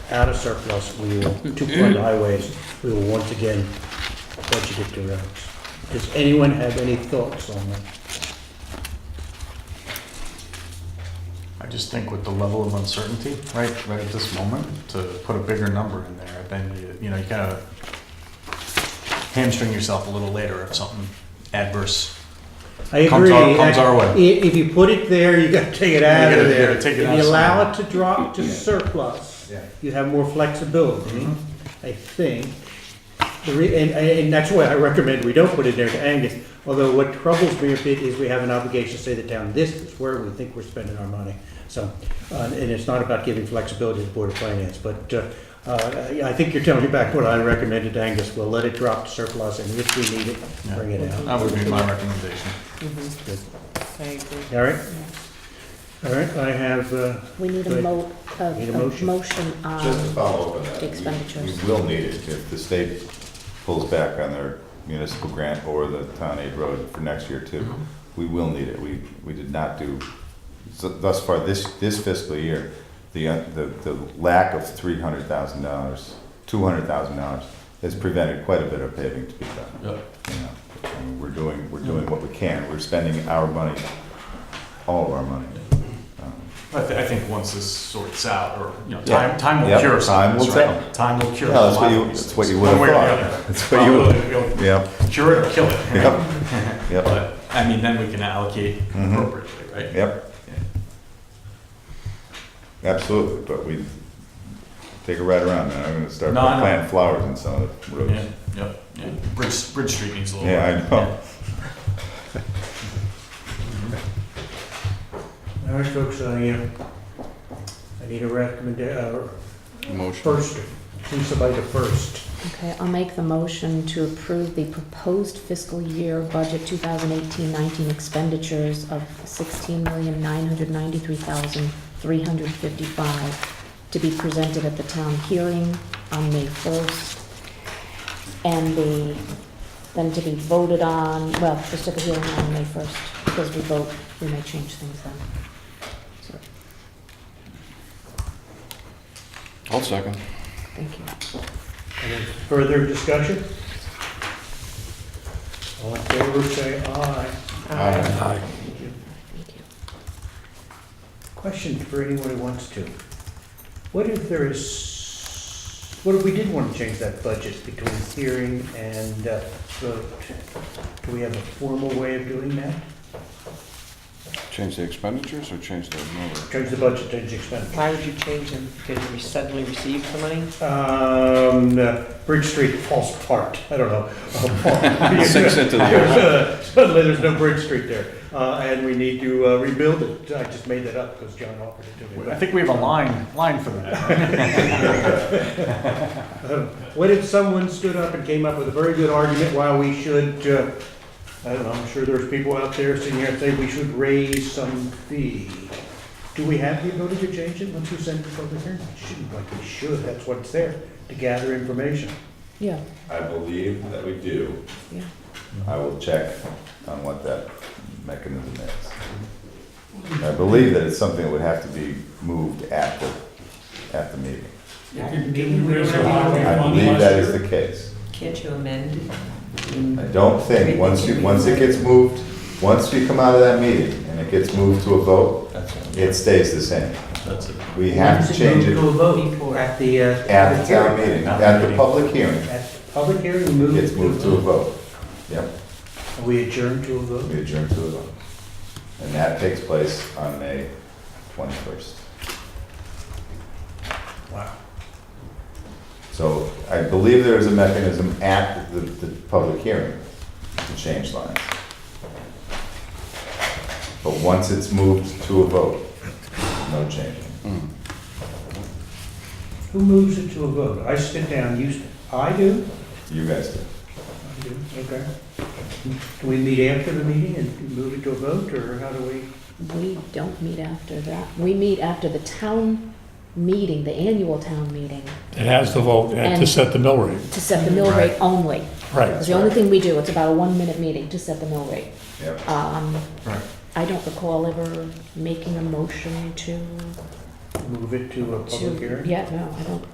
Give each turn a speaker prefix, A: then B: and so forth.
A: out of surplus, we will, to fund highways, we will once again budget it to roads. Does anyone have any thoughts on that?
B: I just think with the level of uncertainty, right, right at this moment, to put a bigger number in there, then you, you know, you kind of hamstring yourself a little later if something adverse.
A: I
B: Comes
A: agree.
B: our- comes our way.
A: I- If you put it there, you gotta take it out
B: You
A: of
B: gotta- you
A: there.
B: gotta take it out
A: If you allow
B: somewhere.
A: it to drop to surplus,
B: Yeah.
A: you have more flexibility, I think. The re, and, and that's why I recommend we don't put it there to Angus, although what troubles me a bit is we have an obligation to say to the town, this is where we think we're spending our money. So, uh, and it's not about giving flexibility to the Board of Finance, but, uh, uh, I I think you're telling me back what I recommended to Angus, we'll let it drop to surplus, and if we need it,
B: Yeah.
A: bring it out.
B: That would be my recommendation.
C: Mhm,
A: Good. Mm-hmm.
C: I agree.
A: All right? All right, I have, uh,
D: We need
A: Right.
D: a mo, a
A: Need a
D: a
A: motion.
D: motion
E: Just to
D: on,
E: follow up on that. we-
D: Expenditures.
E: We will need it if the state pulls back on their municipal grant or the town aid road for next year too. We will need it. We, we did not do, so thus far, this, this fiscal year, the, uh, the, the lack of three hundred thousand dollars, two hundred thousand dollars has prevented quite a bit of paving to be done. You know, and We're doing, we're doing what we can. We're spending our money, all of our money. Um,
B: I, th- I think once this sorts out, or, you know,
E: Yeah.
B: time, time will
E: Yep,
B: cure some
E: time
B: of this,
E: will
B: right? Time will cure a
E: Yeah, that's what
B: lot
E: you,
B: of these
E: that's what
B: things.
E: you would
B: One
E: have
B: way or the
E: thought.
B: other.
E: That's what you would,
B: Well, we'll- we'll
E: yep,
B: Cure it or kill it, right?
E: yep, yep,
B: But, I mean, then we can allocate
E: Mhm.
B: appropriately, right?
E: yep. Absolutely, but we, take a ride around now, I'm gonna start
B: No, I know.
E: planting flowers in some of the
B: Yeah,
E: roads.
B: yep, yeah. Bridge, Bridge Street needs a little.
E: Yeah, I
B: work.
E: know.
A: all right, folks, I, uh, I need a recommendation. uh, first, please somebody to first.
D: okay, I'll make the motion to approve the proposed fiscal year budget 2018-19 expenditures of sixteen million nine hundred ninety-three thousand three hundred fifty-five to be presented at the town hearing on May first. And the, then to be voted on, well, just at the hearing on May first, because we vote, we may change things then. So,
F: I'll second.
D: thank you.
A: Any further discussion? All in favor, say aye.
E: Aye.
A: Thank you.
D: Thank you.
A: Question for anyone who wants to. What if there is, what if we did want to change that budget between hearing and uh, vote? Do we have a formal way of doing that?
F: Change the expenditures or change the number?
A: Change the budget, change the expenditure.
C: Why would you change them? Because we suddenly received the money?
A: Um, uh, Bridge Street falls apart, I don't know.
F: Sinks into the ocean.
A: Suddenly, there's no Bridge Street there, uh, and we need to uh, rebuild it. I just made that up because John offered it to me.
B: I think we have a line, line for that.
A: Um, What if someone stood up and came up with a very good argument why we should, uh, I don't know, I'm sure there's people out there sitting here and say we should raise some fee. Do we have the ability to change it once we send it to public hearing? We Shouldn't, like we should, that's what's there, to gather information.
D: Yeah,
E: I believe that we do.
D: yeah.
E: I will check on what that mechanism is. I believe that it's something that would have to be moved at the, at the meeting. I believe that is the case.
C: Can't you amend?
E: I don't think, once you, once it gets moved, once we come out of that meeting and it gets moved to a vote, it stays the same.
B: That's it.
E: We have to change it
C: Before.
A: At the, uh,
E: at the town meeting, at the public hearing,
A: At the public hearing, we
E: it
A: move.
E: gets moved to a vote. Yep,
A: And We adjourn to a vote.
E: we adjourn to a vote. And that takes place on May twenty-first.
A: Wow.
E: So I believe there is a mechanism at the, the public hearing to change lines. But once it's moved to a vote, no changing.
A: Who moves it to a vote? I sit down, you, st- I do?
E: You guys do.
A: I do, okay. Do we meet after the meeting and move it to a vote, or how do we?
D: We don't meet after that. We meet after the town meeting, the annual town meeting,
G: It has the vote uh, to
D: And-
G: set the mill rate,
D: to set the mill rate only.
G: right.
D: It's the
E: That's
D: only
E: right.
D: thing we do. It's about a one-minute meeting to set the mill rate.
E: Yep.
D: Um,
B: Right.
D: I don't recall ever making a motion to,
A: Move it to a public
D: to,
A: hearing?
D: yeah, no, I don't